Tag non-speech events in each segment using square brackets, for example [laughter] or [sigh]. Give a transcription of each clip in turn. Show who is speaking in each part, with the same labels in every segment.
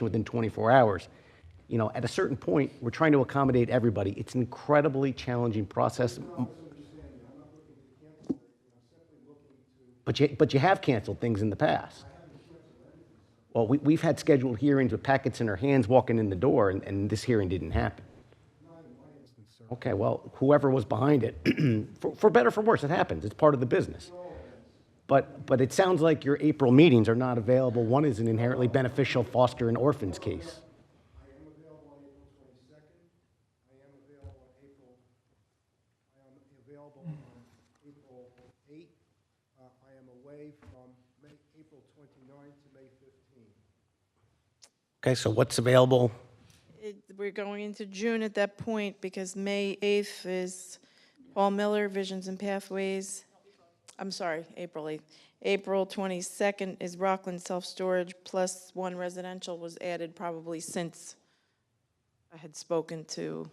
Speaker 1: within 24 hours. You know, at a certain point, we're trying to accommodate everybody. It's an incredibly challenging process. But you, but you have canceled things in the past. Well, we, we've had scheduled hearings with packets in our hands walking in the door, and, and this hearing didn't happen. Okay, well, whoever was behind it, [clears throat] for, for better or for worse, it happens. It's part of the business. But, but it sounds like your April meetings are not available. One is an inherently beneficial foster and orphans case.
Speaker 2: I am available on April twenty-second. I am available on April, I am available on April eighth. Uh, I am away from May, April 29th to May fifteenth.
Speaker 1: Okay, so what's available?
Speaker 3: It- We're going into June at that point because May 8th is Paul Miller, Visions and Pathways. I'm sorry, April 8th. April 22nd is Rockland Self-Storage, plus one residential was added probably since I had spoken to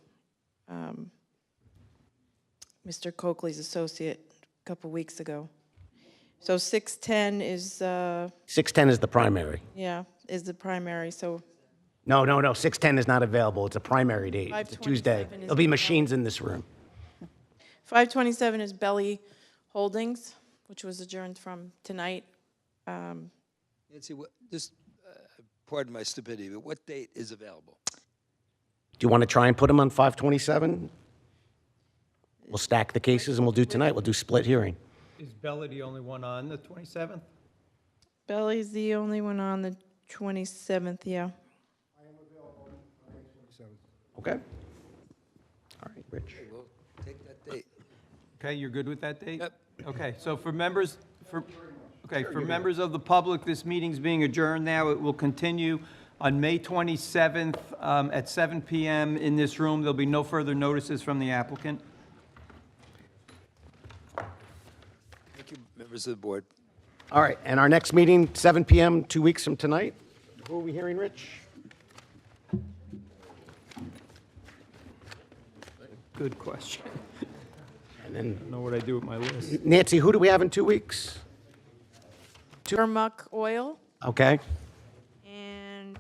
Speaker 3: um, Mr. Coakley's associate a couple weeks ago. So 610 is, uh,
Speaker 1: 610 is the primary.
Speaker 3: yeah, is the primary, so
Speaker 1: No, no, no, 610 is not available. It's a primary date. It's a Tuesday.
Speaker 3: 527 is
Speaker 1: There'll be machines in this room.
Speaker 3: 527 is Belly Holdings, which was adjourned from tonight. Um,
Speaker 4: Nancy, what, just, uh, pardon my stupidity, but what date is available?
Speaker 1: Do you want to try and put them on 527? We'll stack the cases and we'll do tonight. We'll do split hearing.
Speaker 5: Is Bella the only one on the 27th?
Speaker 3: Belly's the only one on the 27th, yeah.
Speaker 1: Okay? All right, Rich.
Speaker 4: We'll take that date.
Speaker 5: Okay, you're good with that date?
Speaker 4: Yep.
Speaker 5: Okay, so for members, for, okay, for members of the public, this meeting's being adjourned now. It will continue on May 27th um, at 7 PM in this room. There'll be no further notices from the applicant.
Speaker 4: Thank you, members of the board.
Speaker 1: All right, and our next meeting, 7 PM, two weeks from tonight. Who are we hearing, Rich?
Speaker 5: Good question.
Speaker 1: And then,
Speaker 5: Know what I do with my list.
Speaker 1: Nancy, who do we have in two weeks?
Speaker 3: Turmuck Oil
Speaker 1: Okay?
Speaker 3: and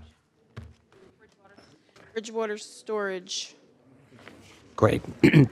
Speaker 3: Bridgewater Storage.
Speaker 1: Great. [clears throat]